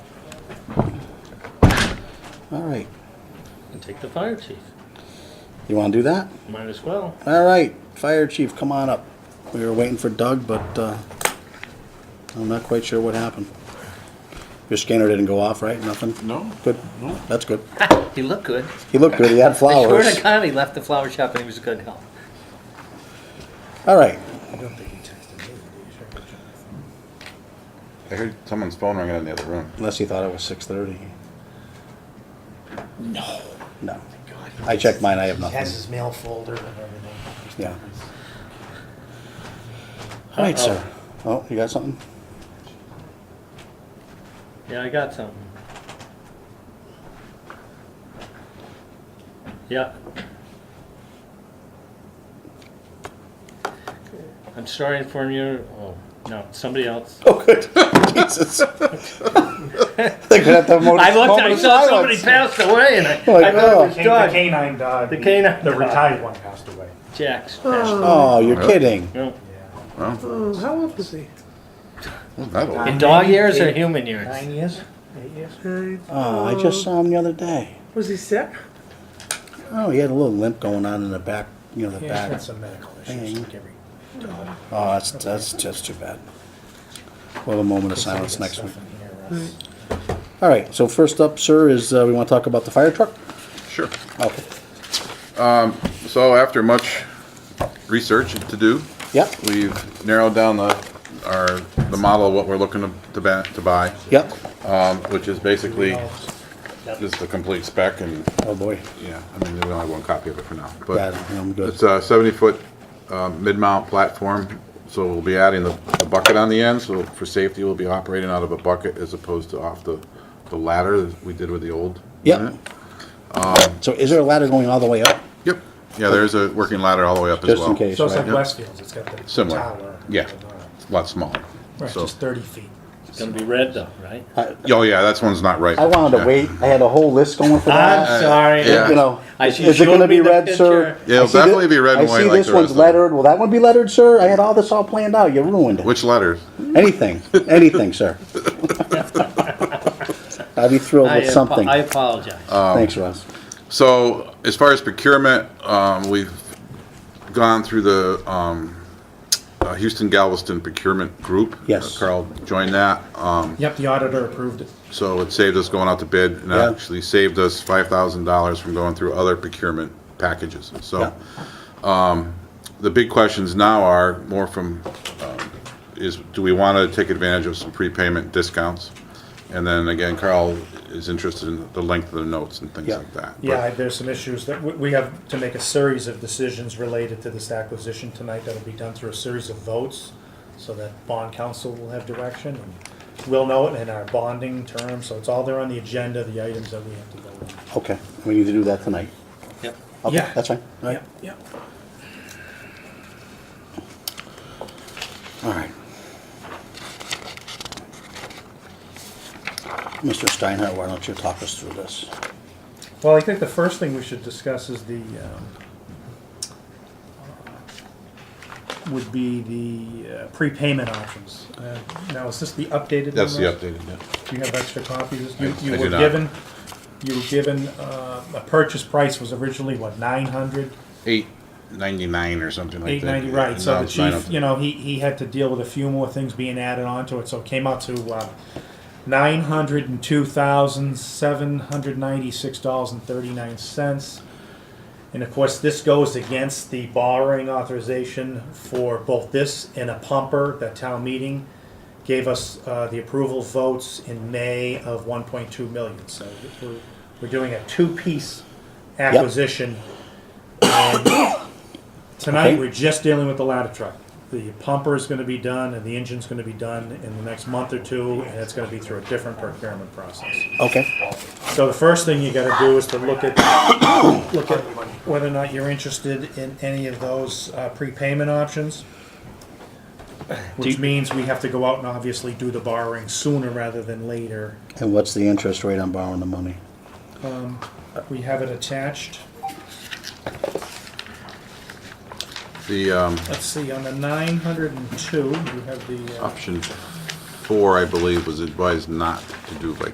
All right. and take the fire chief. You want to do that? Might as well. All right. Fire chief, come on up. We were waiting for Doug, but uh, I'm not quite sure what happened. Your scanner didn't go off, right? Nothing? No. Good. That's good. he looked good. He looked good. He had I flowers. swear to God, he left the flower shop and he was a good help. All right. I heard someone's phone ringing in the other room. Unless he thought it was 6:30. No. No. I checked mine. I have He has nothing. his mail folder and everything. Yeah. All right, sir. Oh, you got something? Yeah, I got something. Yeah. I'm sorry to inform you. Oh, no, somebody else. Oh, good. Jesus. They're gonna have to have mo- I looked, I moment of saw somebody silence. pass away and I, Like, I thought oh. it was The can- the Doug. canine dog. The canine The dog. retired one passed away. Jack's passed away. Oh, you're kidding. No. Yeah. Well, Oh, how old was he? wasn't that old? In dog years or Eight- human years? Nine years? Eight years? Nine. Oh, I just saw him the other day. Was he sick? Oh, he had a little limp going on in the back, you know, the Yeah, he's back. got some medical Dang. issues. like every dog. Oh, that's, that's just too bad. We'll have a moment of silence next Somebody gets week. stuff in here, uh, Russ. All right, so first up, sir, is, uh, we wanna talk about the fire truck? Sure. Okay, So after much research to do, yep, we've narrowed down the, our, the model of what we're looking to, to ba- to buy, yep. um, which is basically just the complete spec and, Oh, boy. yeah, I mean, we only have one copy of it for now. Bad, But I'm good. it's a seventy-foot, uh, mid-mount platform, so we'll be adding the, the bucket on the end, so for safety, we'll be operating out of a bucket as opposed to off the, the ladder that we did with the old. Yep. unit. So is there a ladder going all the way up? Yep. Yeah, there is a working ladder all the way up as Just well. in case, So it's like right? Yep. Westfield's, it's got the Similar. tower. Yeah. A lot smaller. Right, So, just thirty feet. It's gonna be red though, right? oh yeah, that's one's not right. I wanted to Yeah. wait, I had a whole list going for that. I'm sorry. yeah. you know, I- is you is it showed gonna me be the red, sir? picture. Yeah, it'll I see thi- definitely be red and white I see like this the one's rest of them. lettered, will that one be lettered, sir? I had all this all planned out, you ruined it. Which letters? Anything, anything, sir. I'd be thrilled I with apo- something. Uh, I apologize. Um, Thanks, Russ. So as far as procurement, um, we've gone through the um, uh, Houston Galveston procurement group. Yes. Uh, Carl joined that. Um, Yep, the auditor approved it. so it saved us going out to bid and Yeah. actually saved us five thousand dollars from going through other procurement packages. So. um, Yeah. the big questions now are more from, um, is, do we want to take advantage of some prepayment discounts? And then again, Carl is interested in the length of the notes and things Yeah. like that. But- Yeah, there's some issues that, we- we have to make a series of decisions related to this acquisition tonight that'll be done through a series of votes, so that bond council will have direction, and we'll know it in our bonding terms, so it's all there on the agenda, the items that we have to vote Okay, we need to do that tonight. Yep. Okay, Yeah. that's fine, all on. right, yep. all right. Mr. Steinhardt, why don't you talk us through this? Well, I think the first thing we should discuss is the, um, would be the uh, prepayment options. Uh, Now, is this the updated one? That's the Russ? updated, yeah. Do you have extra copies? You, I- I you do were not. given, you were given, uh, a purchase price was originally, what, nine hundred? Eight ninety-nine or something like that. Eight ninety, right, so Now the it's nine chief, oh- you know, he, he had to deal with a few more things being added on to it, so it came out to, uh, nine hundred and two thousand, seven hundred ninety-six dollars and thirty-nine cents. And of course, this goes against the borrowing authorization for both this and a pumper that town meeting gave us uh, the approval votes in May of 1.2 million. So we're, we're doing a two-piece acquisition. And Tonight, Okay. we're just dealing with the ladder truck. The pumper is going to be done and the engine's going to be done in the next month or two, and it's going to be through a different procurement process. Okay, So the first thing you gotta do is to look at, look at whether or not you're interested in any of those uh, prepayment options. Which means we have to go out and obviously do the borrowing sooner rather than later. and what's the interest rate on borrowing the money? We have it attached, The, um, let's see, on the nine hundred and two, you have the. uh, option four, I believe, was advised not to do like